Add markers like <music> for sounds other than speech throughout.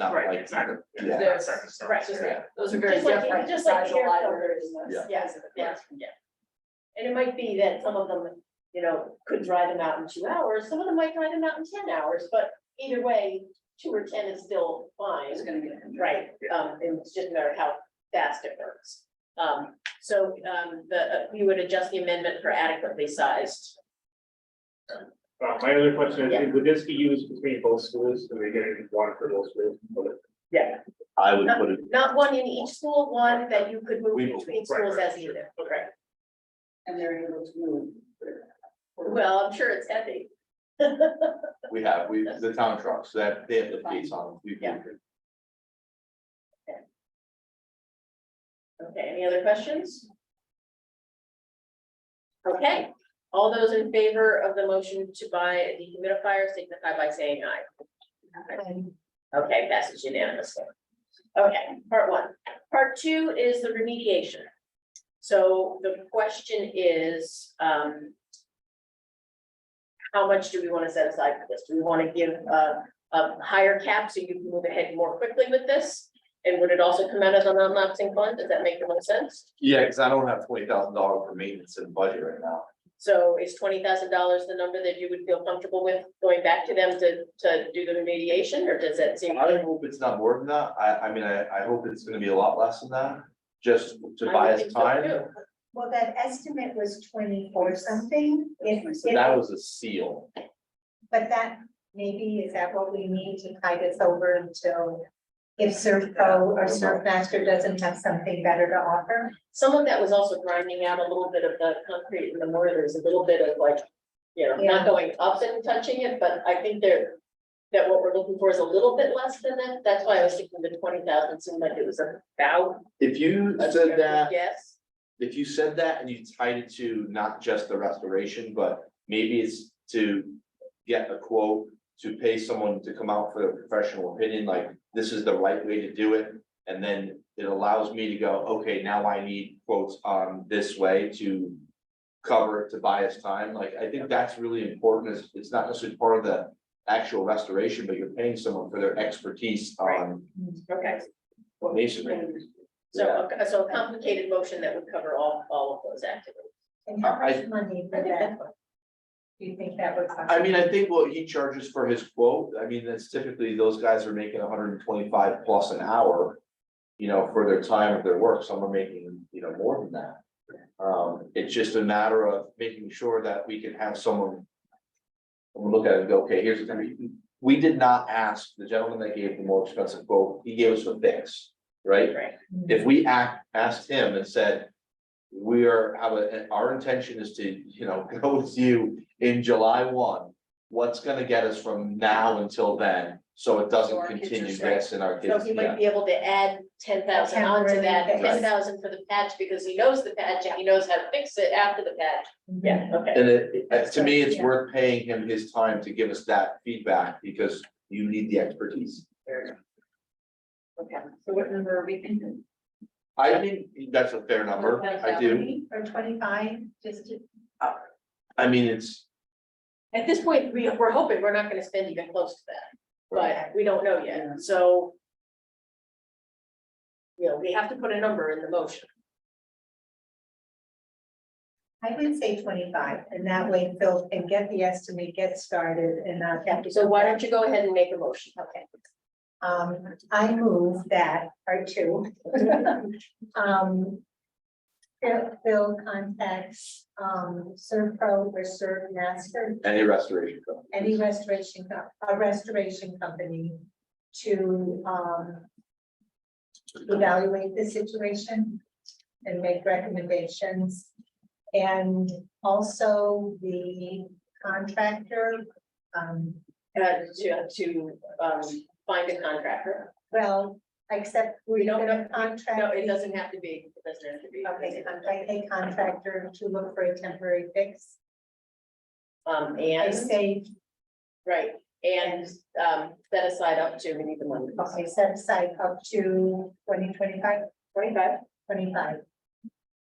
not Right, like, exactly. yeah. There's- Circumstances, right, just yeah. Those are very Just like- different just like size of hair libraries. colors. Yeah. Yeah. Yeah. And it might be that some of them, you know, could dry them out in two hours, some of them might dry them out in ten hours, but either way, two or ten is still fine. It's gonna get. Right, um, and it's just a matter of how fast it works. Um, so, um, the, uh, we would adjust the amendment for adequately sized. Uh, my other question is, would this be used between both schools, do we get it one for both schools? Yeah. I would put it, Not one in each school, one that you could move We- between schools as either. Okay. And they're able to move. Well, I'm sure it's heavy. <laughs> we have, we, the town trucks, that, they have the plates on them, we Yeah. can, Okay, any other questions? Okay, all those in favor of the motion to buy a dehumidifier signify by saying aye. Okay, passes unanimously. Okay, part one. Part two is the remediation. So the question is, um. How much do we want to set aside for this? Do we want to give a, a higher cap so you can move ahead more quickly with this? And would it also come out of the non-lapsing fund? Does that make the most sense? yeah, cause I don't have twenty thousand dollars for maintenance in the budget right now. So is twenty thousand dollars the number that you would feel comfortable with going back to them to, to do the remediation, or does that seem? I hope it's not more than that, I, I mean, I, I hope it's gonna be a lot less than that, just to I buy would us think so time, too. Well, that estimate was twenty-four something, if, So if, that was a seal. but that maybe is that what we need to tide us over until. If Servco or Surfmaster doesn't have something better to offer, Some of that was also grinding out a little bit of the concrete and the mortar, there's a little bit of like, you know, not Yeah. going up and touching it, but I think there. That what we're looking for is a little bit less than that, that's why I was thinking the twenty thousand seemed like it was about. If you a said that, Yes, if you said that and you tied it to not just the restoration, but maybe it's to get a quote. To pay someone to come out for a professional opinion, like this is the right way to do it. And then it allows me to go, okay, now I need quotes on this way to cover to buy us time. Like, I think that's really important. It's, it's not necessarily part of the actual restoration, but you're paying someone for their expertise on okay. masonry. So, Yeah. a- so a complicated motion that would cover all, all of those activities. and how I- much money I for think that, that's fine. do you think that would cost? I mean, I think what he charges for his quote, I mean, that's typically, those guys are making hundred and twenty-five plus an hour. You know, for their time of their work, some are making, you know, more than that. Um, it's just a matter of making sure that we can have someone. We'll look at it and go, okay, here's the thing, we did not ask the gentleman that gave the more expensive quote, he gave us a fix, right? Right. Hmm. If we act, asked him and said. We are, have a, our intention is to, you know, <laughs> go with you in July one. What's gonna get us from now until then, so it So doesn't our kids are continue safe. this in our So kids, he might yeah, be able to add ten thousand onto Temporary that, fix. ten thousand for the patch, because he knows the patch and he knows how to fix it after the patch. okay. and it, it- to me, it's Yeah. worth paying him his time to give us that feedback, because you need the expertise. Okay, So what number are we <laughs> thinking? I think that's a fair number, I do, Or twenty-five, just to, I mean, it's, at this point, we, we're hoping we're not gonna spend even close to that, but we don't know Yeah. yet, so. You know, we have to put a number in the motion, I would say twenty-five, and that way Phil can get the estimate, get started, and not have to. so why don't you go ahead and make a motion? Okay. Um, I move that, or two. Um. Phil- Phil contacts, um, Servpro or Servmaster, any restoration. company. any restoration, co- a restoration company to, um. Evaluate the situation and make recommendations. And also the contractor, um, Uh, to, to, um, find a contractor. Well, except We we're don't gonna No, contract. it the- doesn't have to be, it doesn't have to be. Okay, contract a contractor to look for a temporary fix. Um, I and, say, right, and, um, set aside up to, we need the money. okay, set aside up to twenty twenty-five, Twenty-five twenty-five.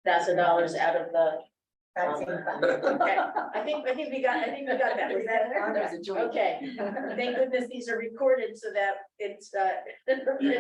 thousand dollars out of the That's in Um, fact. Okay, I think, I think we got, I think we got that, was <laughs> that? Okay, thank goodness these are recorded so that it's, uh. <laughs>